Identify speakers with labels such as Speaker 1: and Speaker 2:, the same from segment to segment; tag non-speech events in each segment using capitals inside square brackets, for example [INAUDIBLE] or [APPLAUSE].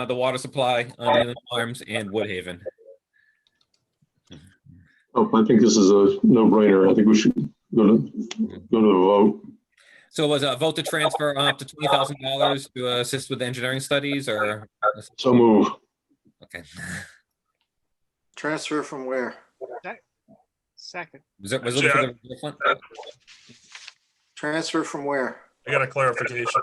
Speaker 1: uh, the water supply on Inland Farms and Woodhaven.
Speaker 2: Oh, I think this is a no-brainer. I think we should go to, go to a vote.
Speaker 1: So was a vote to transfer up to twenty thousand dollars to assist with engineering studies or?
Speaker 2: So move.
Speaker 1: Okay.
Speaker 3: Transfer from where?
Speaker 4: Second.
Speaker 1: Was it, was it for the different?
Speaker 3: Transfer from where?
Speaker 5: I got a clarification.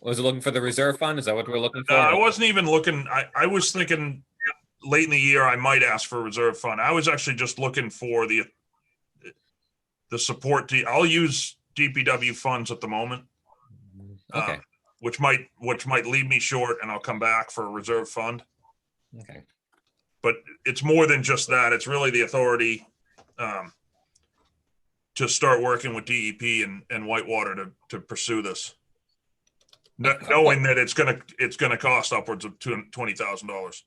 Speaker 1: Was it looking for the reserve fund? Is that what we're looking for?
Speaker 5: No, I wasn't even looking, I, I was thinking late in the year, I might ask for a reserve fund. I was actually just looking for the the support, to- I'll use DPW funds at the moment,
Speaker 1: Okay,
Speaker 5: uh, which might, which might leave me short and I'll come back for a reserve fund.
Speaker 1: okay.
Speaker 5: It's more than just that. It's really the authority um, to start working with DEP and, and Whitewater to, to pursue this. Kn- Knowing that it's gonna, it's gonna cost upwards of two, twenty thousand dollars.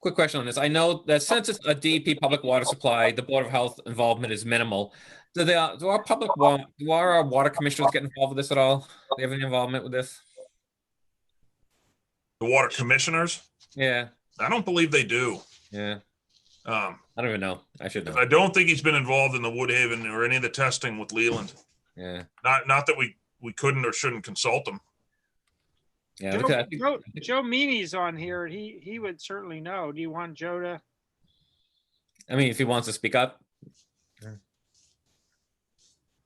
Speaker 1: Quick question on this. I know that since it's a DEP public water supply, the Board of Health involvement is minimal. Do they, do our public, wa- do our uh, water commissioners get involved with this at all? Do they have any involvement with this?
Speaker 5: The water commissioners?
Speaker 1: Yeah,
Speaker 5: I don't believe they do.
Speaker 1: yeah.
Speaker 5: Um,
Speaker 1: I don't even know. I should know.
Speaker 5: I don't think he's been involved in the Woodhaven or any of the testing with Leland.
Speaker 1: Yeah,
Speaker 5: Not, not that we, we couldn't or shouldn't consult him.
Speaker 1: yeah. because I
Speaker 4: Joe,
Speaker 1: think-
Speaker 4: Joe- Joe Meany's on here. and He, he would certainly know. Do you want Joe to?
Speaker 1: I mean, if he wants to speak up,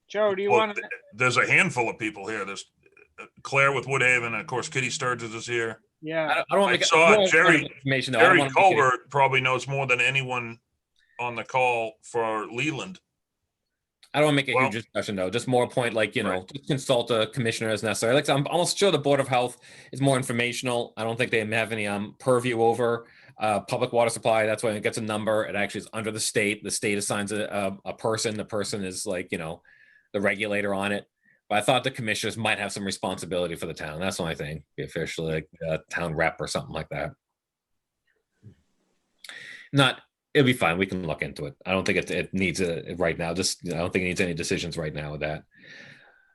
Speaker 4: Joe, do you
Speaker 5: Well,
Speaker 4: want to?
Speaker 5: th- There's a handful of people here. There's uh, Claire with Woodhaven, and of course Kitty Sturgis is here.
Speaker 1: I
Speaker 4: Yeah,
Speaker 1: don't, I don't want
Speaker 5: I
Speaker 1: to.
Speaker 5: saw Jerry-
Speaker 1: Information though. I don't
Speaker 5: Harry
Speaker 1: wanna make any-
Speaker 5: Colbert probably knows more than anyone on the call for Leland.
Speaker 1: I don't want to make a
Speaker 5: Well-
Speaker 1: huge discussion though, just more a point like, you know,
Speaker 5: Right.
Speaker 1: just consult a commissioner as necessary. Like I'm almost sure the Board of Health is more informational. I don't think they have any um purview over uh public water supply. That's when it gets a number. It actually is under the state. The state assigns a a, a person. The person is like, you know, the regulator on it. But I thought the commissioners might have some responsibility for the town. That's the only thing. Be officially like a town rep or something like that. Not it'll be fine. We can look into it. I don't think it, it needs a right now. Just I don't think it needs any decisions right now with that.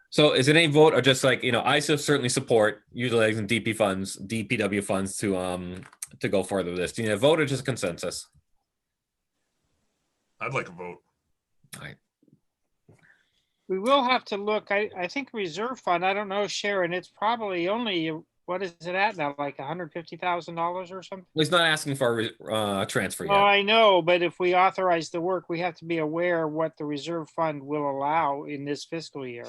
Speaker 1: So is it any vote or just like you know, I so certainly support utilizing DP funds, DPW funds to um to go further with this. Do you need a vote or just consensus?
Speaker 5: I'd like a vote.
Speaker 4: we will have to look. I, I think reserve fund, I don't know, Sharon, it's probably only, what is it at now? Like hundred fifty thousand dollars or something?
Speaker 1: Well, He's not asking for a re- uh, transfer
Speaker 4: Well,
Speaker 1: yet.
Speaker 4: I know, but if we authorize the work, we have to be aware what the reserve fund will allow in this fiscal year.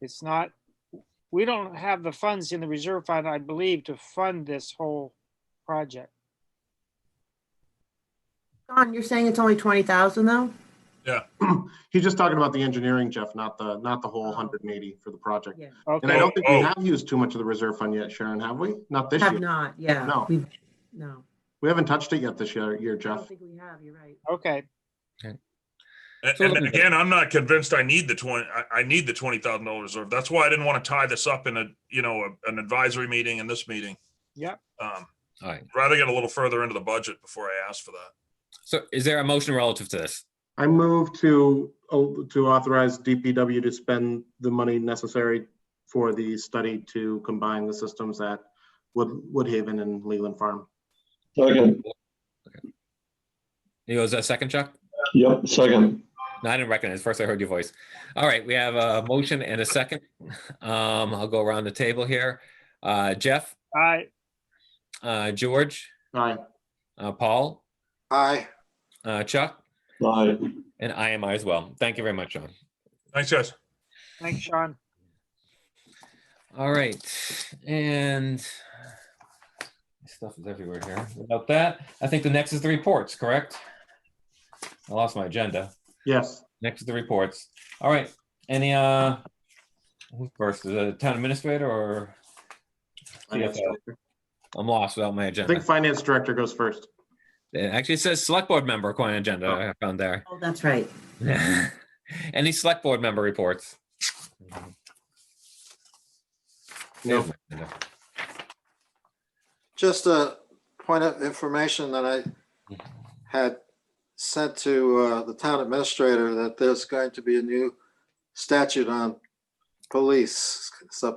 Speaker 4: It's not, we don't have the funds in the reserve fund, I believe, to fund this whole project.
Speaker 6: Don, you're saying it's only twenty thousand though?
Speaker 7: He's just talking about the engineering, Jeff, not the, not the whole hundred and eighty for the project.
Speaker 6: Yeah.
Speaker 7: And I
Speaker 4: Okay,
Speaker 7: don't think we
Speaker 5: Oh, oh.
Speaker 7: have used too much of the reserve fund yet, Sharon, have we? Not this
Speaker 6: Have
Speaker 7: year.
Speaker 6: not, yeah.
Speaker 7: No.
Speaker 6: We've- No,
Speaker 7: We haven't touched it yet this year, year,
Speaker 6: I don't
Speaker 7: Jeff.
Speaker 6: think we have, you're right.
Speaker 4: okay,
Speaker 5: And,
Speaker 1: So
Speaker 5: and
Speaker 1: looking-
Speaker 5: again, I'm not convinced I need the twenty, I, I need the twenty thousand dollar reserve. That's why I didn't want to tie this up in a, you know, a- an advisory meeting and this meeting.
Speaker 4: Yep.
Speaker 5: Um,
Speaker 1: All right.
Speaker 5: rather get a little further into the budget before I ask for that.
Speaker 1: So is there a motion relative to this?
Speaker 7: I move to, oh, to authorize DPW to spend the money necessary for the study to combine the systems at Wood, Woodhaven and Leland Farm.
Speaker 2: Second,
Speaker 1: You was a second, Chuck?
Speaker 2: yep, second.
Speaker 1: No, I didn't recognize. First, I heard your voice. All right, we have a motion and a second. Um, I'll go around the table here. Uh, Jeff,
Speaker 4: I,
Speaker 1: uh, George,
Speaker 7: Aye.
Speaker 1: uh, Paul,
Speaker 3: Aye.
Speaker 1: uh, Chuck,
Speaker 2: Aye.
Speaker 1: and I am I as well. Thank you very much, John.
Speaker 5: Thanks, guys.
Speaker 4: thanks, Sean.
Speaker 1: All right, and stuff is everywhere here. Without that, I think the next is the reports, correct? I lost my agenda.
Speaker 7: Yes.
Speaker 1: Next is the reports. All right, any, uh, who first, the town administrator or
Speaker 7: Finance
Speaker 1: CFO.
Speaker 7: director.
Speaker 1: I'm lost without my
Speaker 7: I
Speaker 1: agenda.
Speaker 7: think finance director goes first.
Speaker 1: It actually says select board member according to agenda I found there. [LAUGHS]
Speaker 6: Oh, that's right.
Speaker 1: Any select board member reports?
Speaker 7: No.
Speaker 3: Just a point of information that I had sent to uh, the town administrator that there's going to be a new statute on police. It's a